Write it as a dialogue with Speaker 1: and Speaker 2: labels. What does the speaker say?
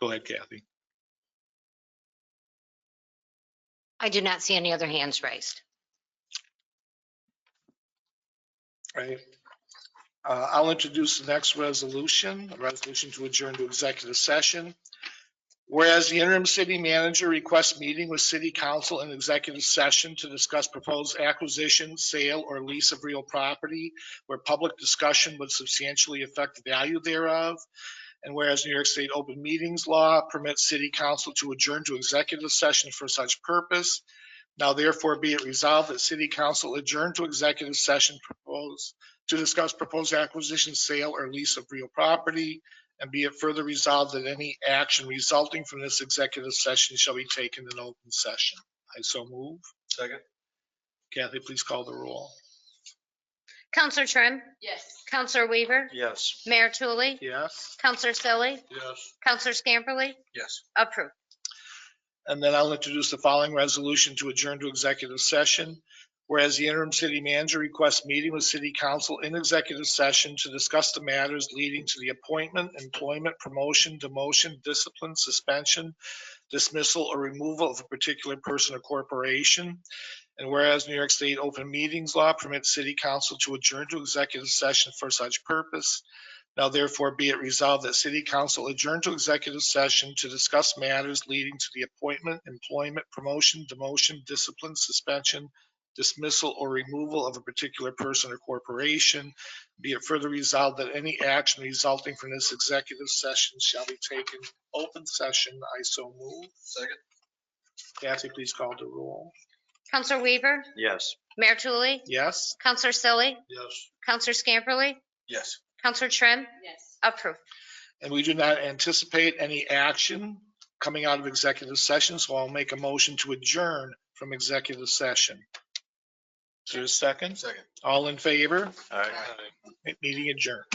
Speaker 1: Go ahead, Kathy.
Speaker 2: I do not see any other hands raised.
Speaker 1: Right. Uh, I'll introduce the next resolution, a resolution to adjourn to executive session. Whereas the interim city manager requests meeting with city council in executive session to discuss proposed acquisition, sale, or lease of real property where public discussion would substantially affect the value thereof. And whereas New York State open meetings law permits city council to adjourn to executive session for such purpose, Now therefore be it resolved that city council adjourn to executive session proposed to discuss proposed acquisition, sale, or lease of real property. And be it further resolved that any action resulting from this executive session shall be taken in open session. I so move.
Speaker 3: Second?
Speaker 1: Kathy, please call the roll.
Speaker 2: Counselor Trim?
Speaker 4: Yes.
Speaker 2: Counselor Weaver?
Speaker 3: Yes.
Speaker 2: Mayor Tully?
Speaker 1: Yes?
Speaker 2: Counselor Selly?
Speaker 3: Yes.
Speaker 2: Counselor Scamperly?
Speaker 3: Yes.
Speaker 2: Approved.
Speaker 1: And then I'll introduce the following resolution to adjourn to executive session. Whereas the interim city manager requests meeting with city council in executive session to discuss the matters leading to the appointment, employment, promotion, demotion, discipline, suspension, dismissal, or removal of a particular person or corporation. And whereas New York State open meetings law permits city council to adjourn to executive session for such purpose. Now therefore be it resolved that city council adjourn to executive session to discuss matters leading to the appointment, employment, promotion, demotion, discipline, suspension, dismissal, or removal of a particular person or corporation. Be it further resolved that any action resulting from this executive session shall be taken open session. I so move.
Speaker 3: Second?
Speaker 1: Kathy, please call the roll.
Speaker 2: Counselor Weaver?
Speaker 3: Yes.
Speaker 2: Mayor Tully?
Speaker 1: Yes?
Speaker 2: Counselor Selly?
Speaker 3: Yes.
Speaker 2: Counselor Scamperly?
Speaker 3: Yes.
Speaker 2: Counselor Trim?
Speaker 4: Yes.
Speaker 2: Approved.
Speaker 1: And we do not anticipate any action coming out of executive session, so I'll make a motion to adjourn from executive session. Is there a second?
Speaker 3: Second.
Speaker 1: All in favor?
Speaker 3: All right.
Speaker 1: Meeting adjourned.